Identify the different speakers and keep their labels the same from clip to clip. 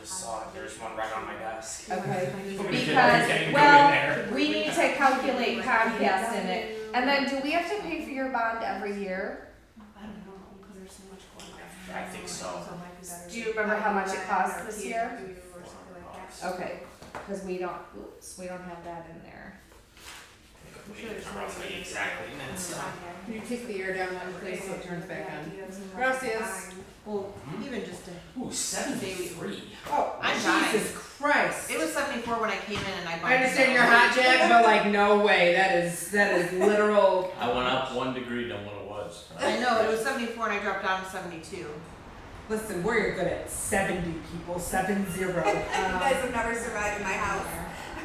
Speaker 1: just saw it. There's one right on my desk.
Speaker 2: Okay.
Speaker 1: Because,
Speaker 2: well,
Speaker 1: well.
Speaker 2: We need to calculate Comcast in it. And then, do we have to pay for your bond every year?
Speaker 3: I don't know, because there's so much going on.
Speaker 1: I think so.
Speaker 2: Do you remember how much it cost this year? Okay, because we don't, oops, we don't have that in there.
Speaker 1: We need to roughly exactly, and it's, uh,
Speaker 4: You take the air down one place so it turns back on. Gracias. Well, even just a.
Speaker 1: ooh, seventy-three.
Speaker 4: Oh,
Speaker 5: I'm
Speaker 4: Jesus Christ!
Speaker 5: It was seventy-four when I came in and I bought.
Speaker 4: I understand you're hot, Jack, but like, no way. That is that is literal.
Speaker 6: I went up one degree than what it was.
Speaker 5: I know, it was seventy-four and I dropped down to seventy-two.
Speaker 4: Listen, we're good at seventy people, seven zero.
Speaker 3: You guys have
Speaker 2: Um,
Speaker 3: never survived in my house.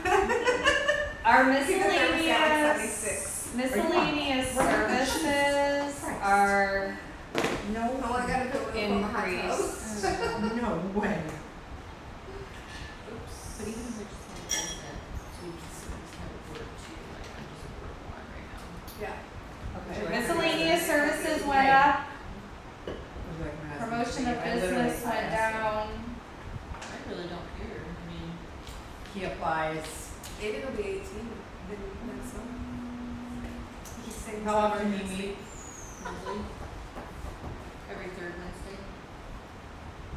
Speaker 2: Our
Speaker 3: think the number's down to
Speaker 2: miscellaneous,
Speaker 3: 76.
Speaker 2: miscellaneous services
Speaker 4: Christ.
Speaker 2: are
Speaker 4: No,
Speaker 3: Oh, I gotta go with the hot tub.
Speaker 2: increased.
Speaker 4: no way.
Speaker 5: But even if it's just like so you can still just have a word two, like
Speaker 3: Yeah.
Speaker 5: I'm just a word one right now.
Speaker 4: Okay.
Speaker 2: Miscellaneous services went up, promotion of
Speaker 4: I literally
Speaker 2: business went
Speaker 4: asked
Speaker 2: down.
Speaker 5: I really don't care, I mean.
Speaker 4: him. He applies.
Speaker 3: Maybe it'll be eighteen, then next one. He's saying
Speaker 4: How often do
Speaker 3: something.
Speaker 4: you meet?
Speaker 5: Usually, every third Wednesday.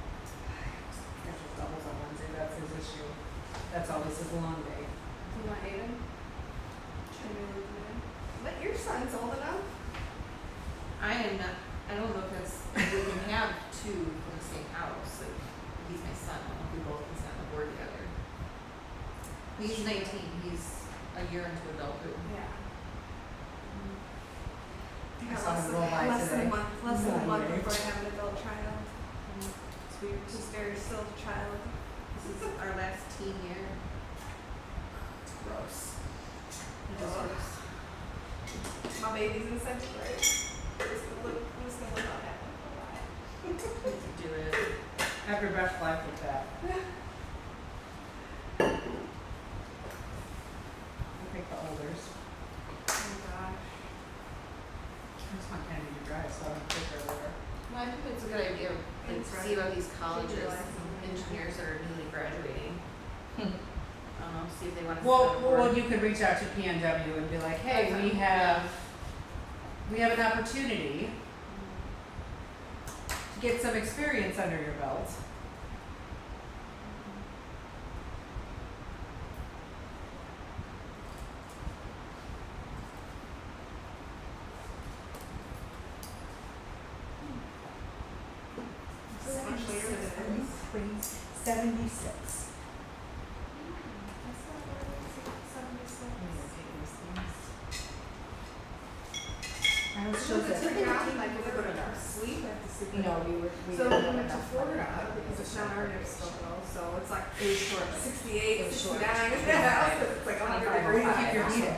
Speaker 4: That's just doubles on Wednesday. That's his issue. That's all. This is a long day.
Speaker 3: You want Aiden? But your son's old enough.
Speaker 5: I am not, I don't know if that's, we can have two from the same house, like, he's my son, I don't know if we both can sit on the board together. But he's nineteen, he's a year into adulthood.
Speaker 3: Yeah.
Speaker 4: I
Speaker 3: Yeah,
Speaker 4: saw
Speaker 3: Mm-hmm. less
Speaker 4: him
Speaker 3: than-
Speaker 4: roll by
Speaker 3: Less than a
Speaker 4: today.
Speaker 3: month, less than a
Speaker 4: Yeah.
Speaker 3: month before I have an adult child. Mm-hmm. It's weird, just very still a child.
Speaker 5: This is our last teen year. It's gross. It is
Speaker 3: Ugh.
Speaker 5: gross.
Speaker 3: My baby's in seventh grade. Who's gonna live, who's gonna live on that one for a while?
Speaker 5: We have to do it.
Speaker 4: Have your best life with that. I think the olders.
Speaker 3: Oh gosh.
Speaker 4: That's not kind of your drive, so I don't think they're older.
Speaker 5: Well, I think it's a good idea, like,
Speaker 3: It's
Speaker 5: to
Speaker 3: right.
Speaker 5: see about these
Speaker 3: Should
Speaker 5: colleges,
Speaker 3: realize something.
Speaker 5: engineers that are newly graduating.
Speaker 2: Hmm.
Speaker 5: Um, see if they wanna. sit
Speaker 4: Well,
Speaker 5: on a board.
Speaker 4: well, you could reach out to PNW and be like, hey, we have, we have an opportunity to get some experience under your belt.
Speaker 3: It's so much later than it is.
Speaker 4: Seventy-six.
Speaker 3: That's not where it is, it's seventy-six.
Speaker 4: I was
Speaker 3: So
Speaker 4: just.
Speaker 3: it's like, like, if I go to dark sleep, I have to sleep. in-
Speaker 2: No, we were, we
Speaker 3: So
Speaker 2: didn't
Speaker 3: we went
Speaker 2: have
Speaker 3: to
Speaker 2: enough money.
Speaker 3: Florida because it's not our next local, so it's like
Speaker 2: It was short. It
Speaker 3: sixty-eight,
Speaker 2: was short.
Speaker 3: sixty-nine, yeah, it's like a hundred
Speaker 2: Twenty-five. oh
Speaker 3: degrees.
Speaker 4: Keep your heat up.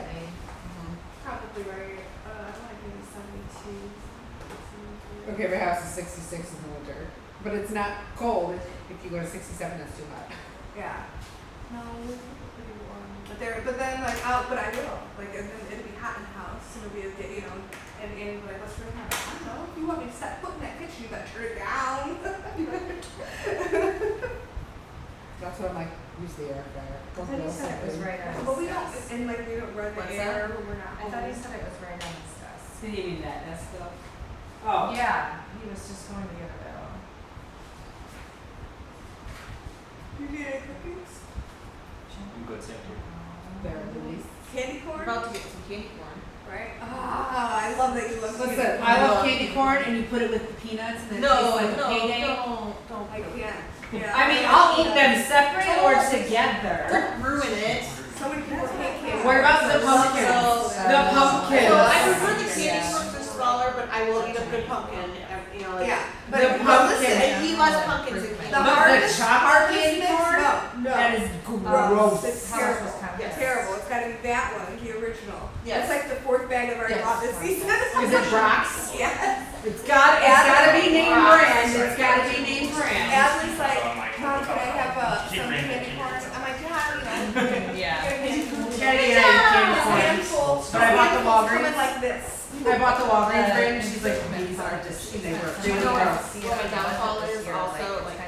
Speaker 3: Probably right, uh, I might be seventy-two. 73.
Speaker 4: Okay, my house is sixty-six in the winter, but it's not cold. If you go to sixty-seven, that's too hot.
Speaker 3: Yeah. No, it's pretty warm. But there, but then like, oh, but I will. Like, and then it'll be hot in the house, and it'll be a day, you know, and Annie will be like, what's for dinner? I don't know. If you want me to set foot in that kitchen, you gotta turn it down.
Speaker 4: That's what I'm like, use the air fryer. Both
Speaker 2: I thought you
Speaker 4: those
Speaker 2: said it was
Speaker 4: things.
Speaker 2: right on
Speaker 3: But we
Speaker 2: his
Speaker 3: don't,
Speaker 2: desk.
Speaker 3: and like, we don't run the
Speaker 5: What's
Speaker 3: air when we're not
Speaker 2: I
Speaker 3: home.
Speaker 2: thought he said it was right on his desk.
Speaker 4: Did you mean that, that's the? Oh.
Speaker 2: Yeah, he was just going to the other barrel.
Speaker 3: You need any cookies?
Speaker 6: I'm good, thank you.
Speaker 4: There, Denise.
Speaker 3: Candy
Speaker 5: We're
Speaker 3: corn?
Speaker 5: about to get some candy corn.
Speaker 3: Right? Ah, I love that you love candy
Speaker 4: Listen,
Speaker 3: corn.
Speaker 4: I love candy corn and you put it with the peanuts and then it tastes like a payday.
Speaker 5: don't, don't.
Speaker 3: I can't. Yeah.
Speaker 4: I mean, I'll eat them separate or together.
Speaker 5: Don't ruin it.
Speaker 3: So many people hate candy.
Speaker 4: What about the
Speaker 3: corn.
Speaker 4: pumpkin? The pumpkin.
Speaker 5: So I prefer the candy
Speaker 2: Yeah.
Speaker 5: corns are smaller, but I will eat a good pumpkin, uh, you know, like.
Speaker 3: Yeah, but
Speaker 4: The
Speaker 3: but
Speaker 4: pumpkin.
Speaker 3: listen,
Speaker 5: And he loves pumpkins and
Speaker 3: the
Speaker 4: But
Speaker 5: candy.
Speaker 4: the
Speaker 3: hardest,
Speaker 4: chocolate
Speaker 3: hardest
Speaker 4: candy
Speaker 3: mix,
Speaker 4: corn?
Speaker 3: no, no.
Speaker 4: That is
Speaker 2: Um,
Speaker 4: gross.
Speaker 3: It's
Speaker 2: How much
Speaker 3: terrible.
Speaker 2: was Comcast?
Speaker 5: Yes.
Speaker 3: Terrible. It's gotta be that one, the original.
Speaker 5: Yes.
Speaker 3: It's like the fourth bag I've already
Speaker 2: Yes.
Speaker 3: bought this season.
Speaker 4: Is it Brock's?
Speaker 3: yeah.
Speaker 4: It's got, it's gotta be named
Speaker 1: Brock's.
Speaker 4: brand, it's gotta be named brand.
Speaker 3: Adley's like,
Speaker 1: So I'm like,
Speaker 3: Mom, can I have uh,
Speaker 1: Oh Keep
Speaker 3: some
Speaker 1: bringing
Speaker 3: candy
Speaker 1: it.
Speaker 3: corn? I'm like, yeah, you know.
Speaker 5: Yeah.
Speaker 4: You
Speaker 3: Candy
Speaker 4: gotta get out of your candy corn.
Speaker 3: handful.
Speaker 4: But I bought the
Speaker 3: handfuls coming
Speaker 4: Walgreens.
Speaker 3: like this.
Speaker 4: I bought the Walgreens brand and she's like, these are just, they were really
Speaker 5: You know,
Speaker 4: gross.
Speaker 5: what my downfall